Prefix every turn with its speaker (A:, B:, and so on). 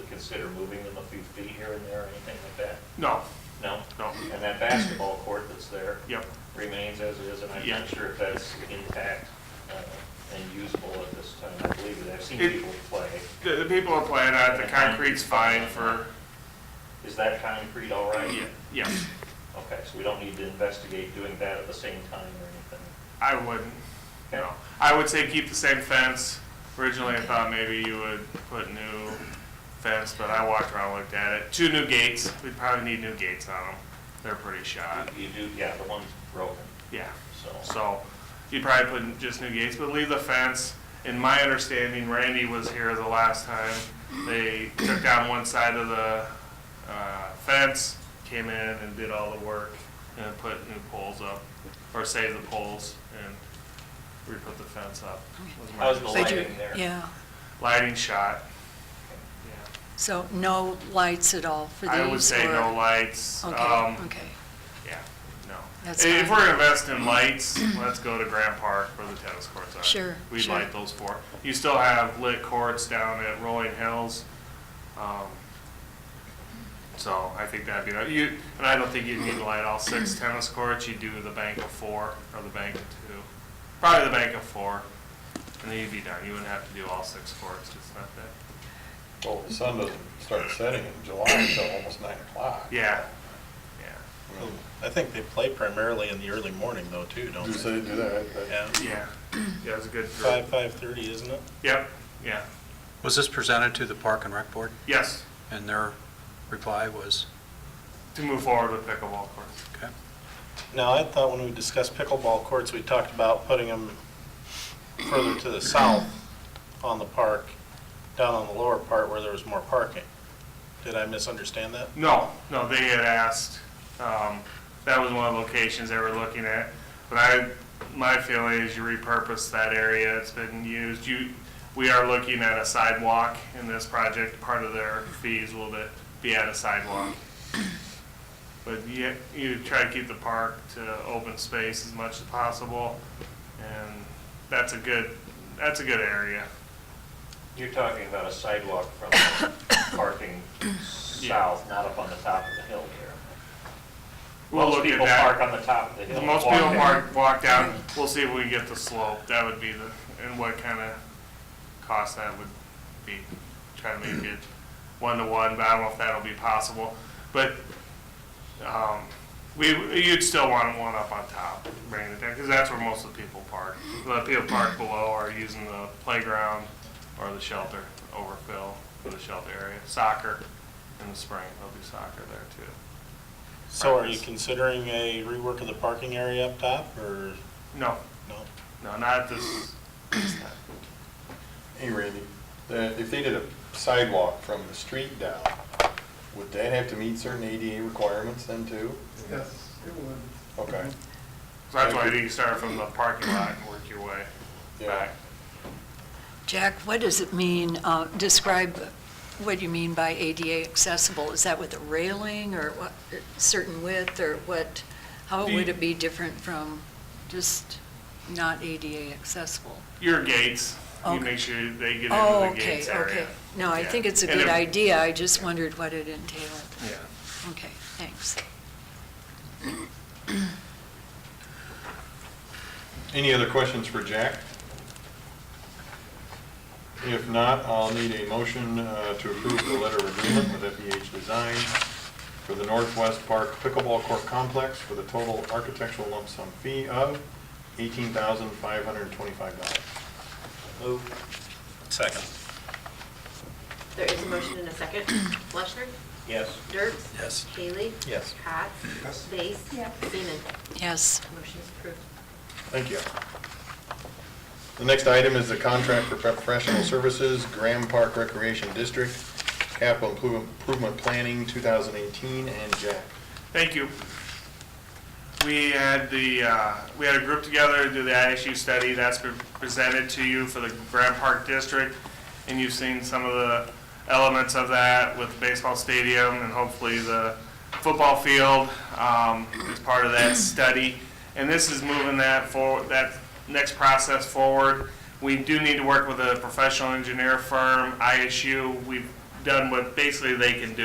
A: consider moving them a few feet here and there, or anything like that?
B: No,
A: No?
B: no,
A: And that basketball court that's there
B: yep,
A: remains as is, and I'm
B: Yeah.
A: not sure if that's intact uh, and usable at this time. I believe it. I've seen
B: It-
A: people play.
B: the, the people are playing on it, the concrete's fine for,
A: Is that concrete all right?
B: yeah, yes,
A: Okay, so we don't need to investigate doing that at the same time or anything?
B: I wouldn't, you know. I would say keep the same fence. Originally, I thought maybe you would put new fence, but I walked around, looked at it. Two new gates, we'd probably need new gates on them. They're pretty shot,
A: You do, yeah, the one's broken,
B: yeah.
A: so,
B: So you'd probably put in just new gates, but leave the fence. In my understanding, Randy was here the last time. They took down one side of the uh, fence, came in and did all the work and put new poles up, or save the poles and re-put the fence up. was my
A: how's the
C: They do,
A: lighting there?
C: yeah.
B: Lighting shot.
C: So no lights at all for
B: Yeah.
C: these?
B: I would say
C: or-
B: no lights.
C: Okay,
B: Um,
C: okay.
B: Yeah, no.
C: That's
B: If
C: fine.
B: we're gonna invest in lights, let's go to Grand Park where the tennis courts are.
C: Sure,
B: We'd
C: sure.
B: light those four. You still have lit courts down at Rolling Hills. um, So I think that'd be, you, and I don't think you'd need to light all six tennis courts. You'd do the bank of four or the bank of two. Probably the bank of four. And then you'd be done. You wouldn't have to do all six courts. It's not that,
D: Well, the sun doesn't start setting in July until almost nine o'clock.
B: yeah, yeah.
E: I think they play primarily in the early morning though, too, don't
D: Do
E: they?
D: they do that? I- I-
E: Yeah,
B: Yeah, yeah, it's a good group.
E: five, five-thirty, isn't it?
B: Yep, yeah,
F: Was this presented to the Park and Rec Board,
B: yes,
F: and their reply was,
B: to move forward with pickleball courts.
F: okay?
E: Now, I thought when we discussed pickleball courts, we talked about putting them further to the south on the park, down on the lower part where there was more parking. Did I misunderstand that?
B: No, no, they had asked, um, that was one of the locations they were looking at. But I, my feeling is you repurpose that area, it's been used, you, we are looking at a sidewalk in this project. Part of their fees will be- be at a sidewalk. But you, you try to keep the park to open space as much as possible, and that's a good, that's a good area.
A: You're talking about a sidewalk from parking south, not up on the top of the hill here.
B: We'll
A: Most
B: look at
A: people
B: that.
A: park on the top of the hill.
B: The
A: and
B: most
A: walk
B: people
A: down.
B: mark, walk down, we'll see if we can get the slope, that would be the, and what kind of cost that would be. Try to make it one-to-one, but I don't know if that'll be possible. But, um, we, you'd still want one up on top, bringing it down, because that's where most of the people park. A lot of people park below are using the playground or the shelter overfill for the shelter area. Soccer in the spring, they'll do soccer there too.
E: So are you considering a rework of the parking area up top, or
B: No,
E: no?
B: no, not at this, this time.
D: Hey, Randy, that- if they did a sidewalk from the street down, would that have to meet certain ADA requirements then too?
G: Yes, it would.
D: Okay.
B: So that's why you think you start from the parking lot and work your way
D: Yeah.
B: back.
C: Jack, what does it mean, uh, describe what you mean by ADA accessible? Is that with a railing or what, certain width or what? How
B: Do you-
C: would it be different from just not ADA accessible?
B: Your gates, you
C: Okay.
B: make sure they get
C: Oh,
B: into the
C: okay,
B: gates
C: okay.
B: area.
C: No, I
B: Yeah.
C: think it's a
B: And
C: good
B: if-
C: idea, I just wondered what it entailed.
B: Yeah.
C: Okay, thanks.
D: Any other questions for Jack? If not, I'll need a motion uh, to approve the letter of agreement with FEH Design for the Northwest Park Pickleball Court Complex for the total architectural lump sum fee of $18,525.
E: Move. Second.
H: There is a motion and a second. Fleschner?
A: Yes.
H: Dirks?
E: Yes.
H: Bailey?
E: Yes.
H: Cox?
G: Yes.
H: Base? Seaman?
C: Yes.
H: Motion is approved.
D: Thank you. The next item is the contract for professional services, Graham Park Recreation District, capital Impro- improvement planning 2018, and Jack.
B: Thank you. We had the, uh, we had a group together to do the ISU study that's been presented to you for the Grand Park District. And you've seen some of the elements of that with the baseball stadium and hopefully the football field um, as part of that study. And this is moving that forward, that next process forward. We do need to work with a professional engineer firm, ISU. We've done what basically they can do